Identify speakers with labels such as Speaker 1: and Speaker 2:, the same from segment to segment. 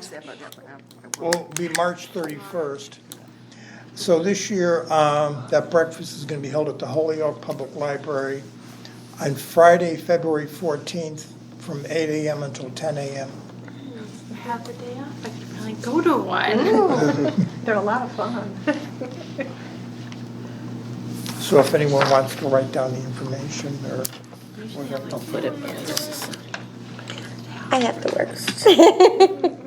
Speaker 1: step up. I- I- I-
Speaker 2: will be March 31st. So this year, um, that breakfast is going to be held at the Holyoke Public Library on Friday, February 14th, from 8 AM until 10 AM.
Speaker 3: Have the day off. I could probably go to one.
Speaker 4: They're a lot of fun.
Speaker 2: So if anyone wants to write down the information or whatever, I'll put it.
Speaker 5: I have to work.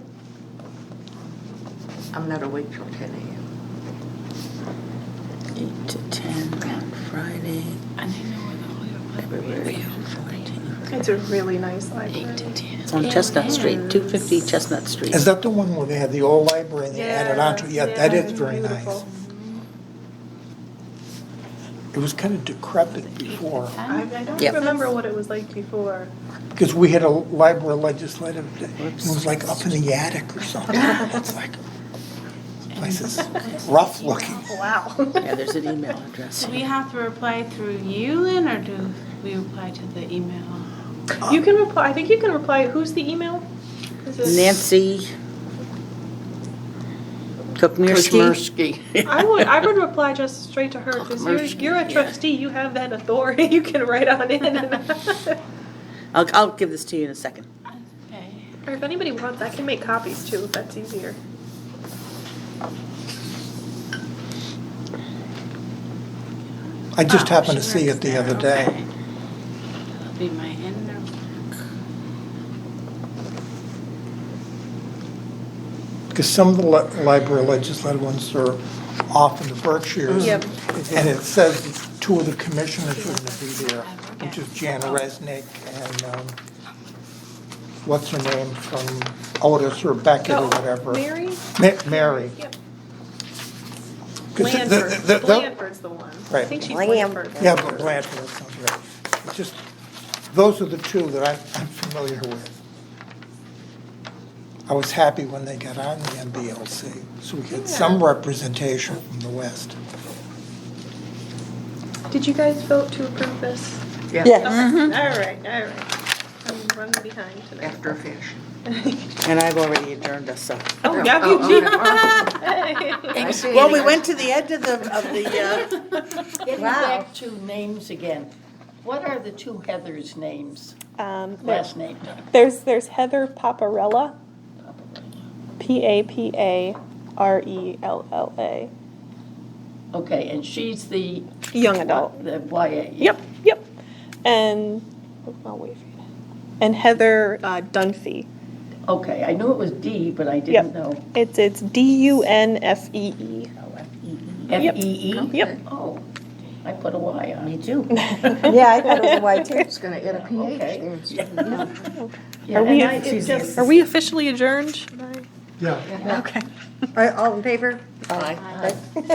Speaker 1: I'm not awake till ten AM.
Speaker 5: Eight to ten on Friday,
Speaker 3: I know where the Holyoke
Speaker 5: February fourteenth.
Speaker 4: It's a really nice library.
Speaker 5: It's on Chestnut Street, two fifty Chestnut Street.
Speaker 2: Is that the one where they had the old library and they added on to it? Yeah, that
Speaker 4: it's
Speaker 2: is very nice.
Speaker 4: beautiful.
Speaker 2: It was kind of decrepit before,
Speaker 4: I, I don't
Speaker 5: Yep.
Speaker 4: remember what it was like before.
Speaker 2: because we had a library legislative, day. it was like up in the attic or something. It's like, place is rough looking.
Speaker 4: Wow.
Speaker 5: Yeah, there's an email address.
Speaker 3: Do we have to reply through you, Lynn, or do we reply to the email?
Speaker 4: You can reply, I think you can reply, who's the email? Is it-
Speaker 5: Nancy Kukmirsky.
Speaker 4: I would, I would reply just straight to her, because you're,
Speaker 5: Mercy,
Speaker 4: you're a
Speaker 5: yeah.
Speaker 4: trustee, you have that authority, you can write on in. and-
Speaker 5: I'll, I'll give this to you in a second.
Speaker 3: Okay.
Speaker 4: Or if anybody wants, I can make copies too, if that's easier.
Speaker 2: I just
Speaker 3: Oh,
Speaker 2: happened to
Speaker 3: she
Speaker 2: see
Speaker 3: works
Speaker 2: it the
Speaker 3: there,
Speaker 2: other day.
Speaker 3: okay. That'll be my inner.
Speaker 2: Because some of the li- library legislative ones are off in the Berkshires.
Speaker 4: Yep.
Speaker 2: And it says two of the commissioners are going to be there, which is Jan Resnick and, um, what's her name from Otis or Beckett or
Speaker 4: Oh,
Speaker 2: whatever.
Speaker 4: Mary?
Speaker 2: Ma- Mary.
Speaker 4: Yep.
Speaker 2: 'Cause the- the- the- the-
Speaker 4: Blanford, Blanford's the one. I
Speaker 2: Right.
Speaker 4: think she's
Speaker 5: Blam-
Speaker 4: Blanford.
Speaker 2: Yeah, but Blanford, that sounds right. It's Just, those are the two that I'm I'm familiar with. I was happy when they got on the MBLC, so we had some representation from the West.
Speaker 4: Did you guys vote to approve this?
Speaker 5: Yeah.
Speaker 4: Okay, all right, all right. I'm running behind tonight.
Speaker 1: After a fashion.
Speaker 5: And I've already adjourned us, so.
Speaker 4: Oh,
Speaker 1: Oh,
Speaker 4: yeah,
Speaker 1: oh,
Speaker 4: you
Speaker 1: okay.
Speaker 4: did.
Speaker 1: I see.
Speaker 5: Well, we went to the end of the, of the, uh,
Speaker 6: Getting back to names again, what are the two Heathers' names,
Speaker 7: Um, there-
Speaker 6: last names?
Speaker 7: there's there's Heather Paparella, P A P A R E L L A,
Speaker 6: Okay, and she's the,
Speaker 7: young adult.
Speaker 6: the E? YA.
Speaker 7: Yep, yep. And I'll wait for you. And Heather uh, Dunphy.
Speaker 6: Okay, I knew it was D, but I didn't know.
Speaker 7: It's it's D U N F E E. Yep.
Speaker 6: F-E-E?
Speaker 7: Yep.
Speaker 6: E Oh, I put a Y on.
Speaker 5: me too. Yeah, I thought it was white too.
Speaker 1: It's gonna add a PH
Speaker 6: Okay.
Speaker 1: there. instead of an L.
Speaker 6: Yeah,
Speaker 7: Are we-
Speaker 6: and I- it just-
Speaker 7: Are we officially adjourned?
Speaker 2: Yeah.
Speaker 7: Okay.
Speaker 1: All right, all in favor?
Speaker 5: Aye.